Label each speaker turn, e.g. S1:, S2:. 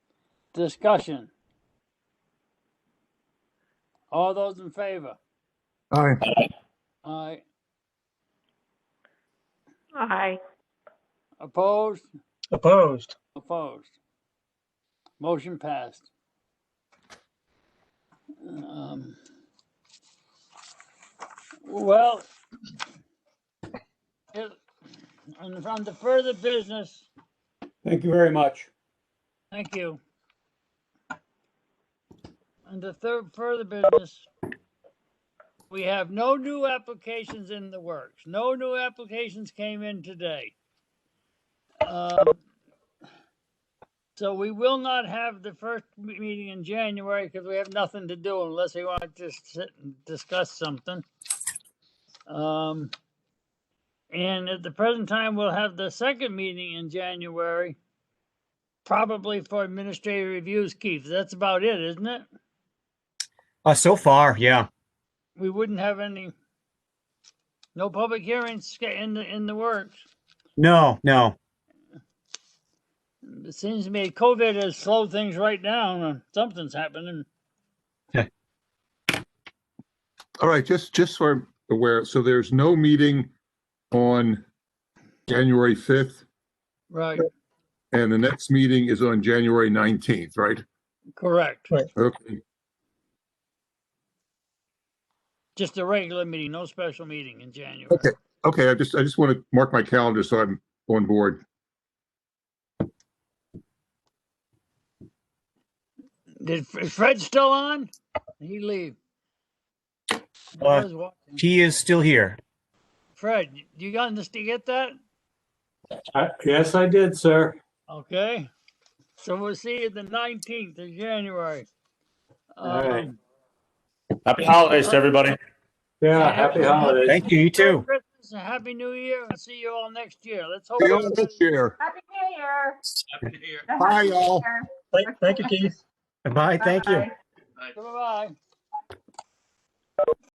S1: Discussion. All those in favor?
S2: Aye.
S1: Aye.
S3: Aye.
S1: Opposed?
S4: Opposed.
S1: Opposed? Motion passed. Um, Well, it- and from the further business,
S5: Thank you very much.
S1: thank you. And the third further business, we have no new applications in the works. No new applications came in today. Um, So we will not have the first me- meeting in January because we have nothing to do unless we want to just sit and discuss something. Um, and at the present time, we'll have the second meeting in January, probably for administrative reviews, Keith. That's about it, isn't it?
S6: Uh, so far, yeah.
S1: We wouldn't have any, no public hearings sca- in the, in the works.
S6: No, no.
S1: It seems to me COVID has slowed things right down and something's happening.
S2: All right, just, just so I'm aware, so there's no meeting on January 5th,
S1: Right,
S2: and the next meeting is on January 19th, right?
S1: correct.
S2: Okay,
S1: Just a regular meeting, no special meeting in January.
S2: Okay. okay, I just, I just want to mark my calendar so I'm on board.
S1: Did is Fred still on? Did he leave? I
S6: Uh,
S1: was watching.
S6: He is still here.
S1: Fred, you got this? You get that?
S5: Uh, Yes, I did, sir.
S1: Okay. So we'll see you the nineteenth of January.
S5: All right.
S1: Um,
S7: Happy holidays to everybody.
S5: Yeah, happy holidays.
S6: Thank you. You
S1: Merry
S6: too.
S1: Christmas and Happy New Year, and see you all next year. Let's hope.
S2: See you all next year.
S3: Happy New Year.
S2: Bye, y'all.
S4: Thank, thank you, Keith.
S6: Bye. Thank you.
S3: Bye-bye.
S1: Bye bye.